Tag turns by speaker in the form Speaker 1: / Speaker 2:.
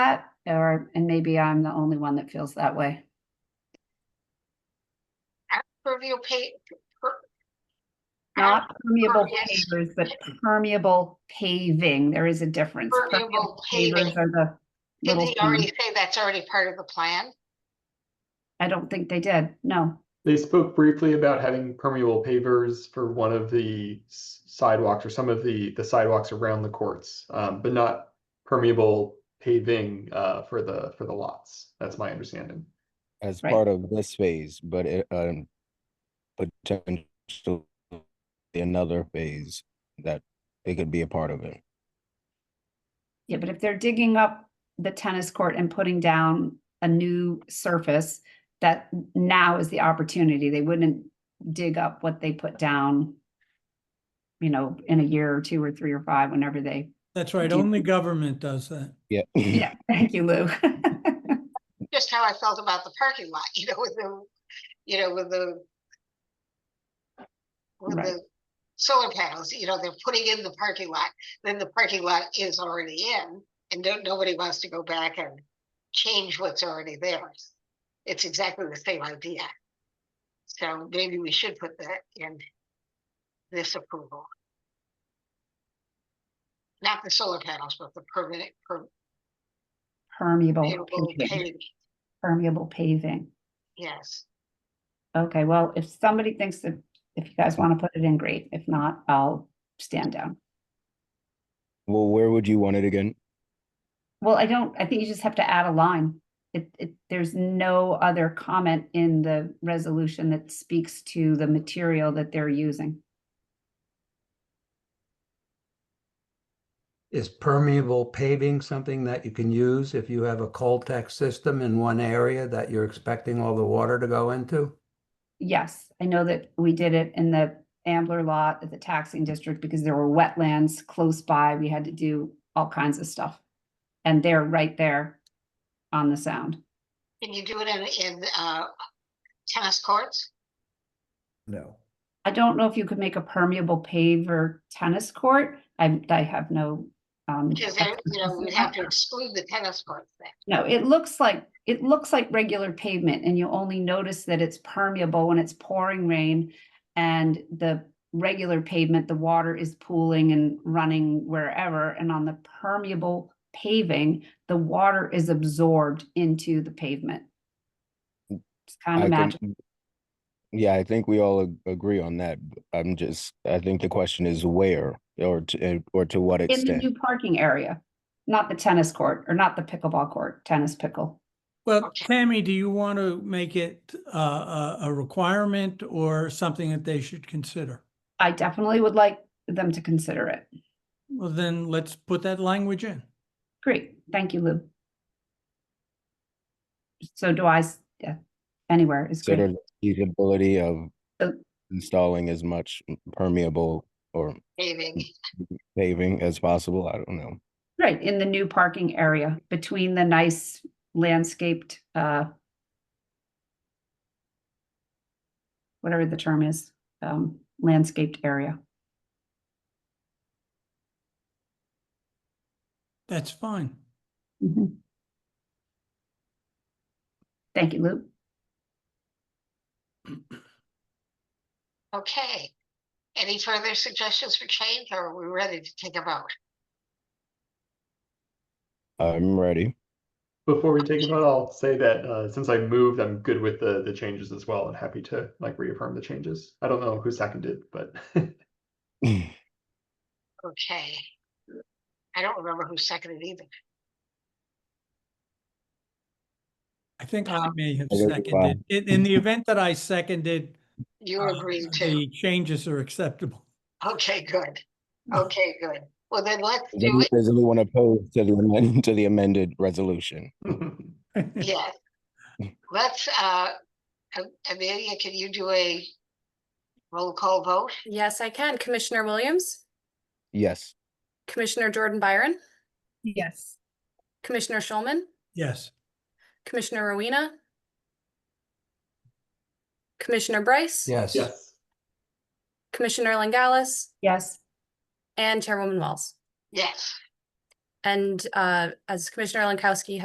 Speaker 1: that, or, and maybe I'm the only one that feels that way.
Speaker 2: Review pay. per-
Speaker 1: Not permeable
Speaker 2: Impervious.
Speaker 1: pavers, but permeable paving. There is a difference.
Speaker 2: Permeable
Speaker 1: Pavers
Speaker 2: paving.
Speaker 1: are the
Speaker 2: Didn't
Speaker 1: little
Speaker 2: he already
Speaker 1: things.
Speaker 2: say that's already part of the plan?
Speaker 1: I don't think they did. No.
Speaker 3: They spoke briefly about having permeable pavers for one of the s- sidewalks or some of the, the sidewalks around the courts, um, but not permeable paving, uh, for the, for the lots. That's my understanding.
Speaker 4: as
Speaker 1: Right.
Speaker 4: part of this phase, but it, um, potentially another phase that they could be a part of it.
Speaker 1: Yeah, but if they're digging up the tennis court and putting down a new surface, that now is the opportunity. They wouldn't dig up what they put down, you know, in a year or two or three or five, whenever they,
Speaker 5: That's right,
Speaker 1: Do you-
Speaker 5: only government does that.
Speaker 4: Yeah.
Speaker 1: yeah, thank you, Lou.
Speaker 2: Just how I felt about the parking lot, you know, with the, you know, with the. With
Speaker 1: Right.
Speaker 2: the solar panels, you know, they're putting in the parking lot, then the parking lot is already in. And don't, nobody wants to go back and change what's already there. It's exactly the same idea. So maybe we should put that in. This approval. Not the solar panels, but the permanent, per-
Speaker 1: Permeable
Speaker 2: Available
Speaker 1: paving,
Speaker 2: page,
Speaker 1: permeable paving.
Speaker 2: Yes,
Speaker 1: Okay, well, if somebody thinks that, if you guys want to put it in, great. If not, I'll stand down.
Speaker 4: Well, where would you want it again?
Speaker 1: Well, I don't, I think you just have to add a line. It, it, there's no other comment in the resolution that speaks to the material that they're using.
Speaker 6: Is permeable paving something that you can use if you have a Coltech system in one area that you're expecting all the water to go into?
Speaker 1: Yes, I know that we did it in the Ambler lot at the taxing district because there were wetlands close by. We had to do all kinds of stuff. And they're right there on the sound.
Speaker 2: can you do it in, in, uh, tennis courts?
Speaker 7: No.
Speaker 1: I don't know if you could make a permeable paver tennis court. I, I have no. um,
Speaker 2: Because there, you
Speaker 1: expertise
Speaker 2: know,
Speaker 1: in
Speaker 2: we'd have
Speaker 1: that.
Speaker 2: to exclude the tennis courts then.
Speaker 1: No, it looks like, it looks like regular pavement and you only notice that it's permeable when it's pouring rain. And the regular pavement, the water is pooling and running wherever. And on the permeable paving, the water is absorbed into the pavement. It's kind
Speaker 4: I
Speaker 1: of
Speaker 4: can-
Speaker 1: magic.
Speaker 4: Yeah, I think we all ag- agree on that. b- I'm just, I think the question is where or to, and- or to what
Speaker 1: In the
Speaker 4: extent.
Speaker 1: new parking area, not the tennis court or not the pickleball court, tennis pickle.
Speaker 5: Well,
Speaker 2: Okay.
Speaker 5: Tammy, do you want to make it uh, a, a requirement or something that they should consider?
Speaker 1: I definitely would like them to consider it.
Speaker 5: Well, then let's put that language in.
Speaker 1: Great, thank you, Lou. So do I, s- yeah, anywhere is
Speaker 4: Consider
Speaker 1: good.
Speaker 4: the feasibility of
Speaker 1: Uh,
Speaker 4: installing as much permeable or
Speaker 2: Paving,
Speaker 4: paving as possible. I don't know.
Speaker 1: Right, in the new parking area between the nice landscaped, uh, whatever the term is, um, landscaped area.
Speaker 5: That's fine.
Speaker 1: Mhm. Thank you, Lou.
Speaker 2: okay. Any further suggestions for change or are we ready to take a vote?
Speaker 4: I'm ready.
Speaker 3: Before we take a vote, I'll say that, uh, since I moved, I'm good with the, the changes as well and happy to like reaffirm the changes. I don't know who seconded, but
Speaker 2: Okay. I don't remember who seconded either.
Speaker 5: I think I may have
Speaker 4: I guess, wow.
Speaker 5: seconded. In, in the event that I seconded,
Speaker 2: You
Speaker 5: uh,
Speaker 2: agreed to,
Speaker 5: the changes are acceptable.
Speaker 2: okay, good. Okay, good. Well, then let's
Speaker 4: Is
Speaker 2: do
Speaker 4: any-
Speaker 2: it.
Speaker 4: Does anyone oppose to the amend to the amended resolution?
Speaker 2: Yes. Let's, uh, Am- Amelia, can you do a roll call vote?
Speaker 8: Yes, I can. Commissioner Williams,
Speaker 4: Yes.
Speaker 8: Commissioner Jordan Byron,
Speaker 1: Yes.
Speaker 8: Commissioner Schulman,
Speaker 5: Yes,
Speaker 8: Commissioner Rowena, Commissioner Bryce,
Speaker 6: Yes.
Speaker 3: Yes,
Speaker 8: Commissioner Langallis,
Speaker 1: Yes,
Speaker 8: and Chairwoman Wells.
Speaker 2: Yes.
Speaker 8: And uh, as Commissioner Lankowski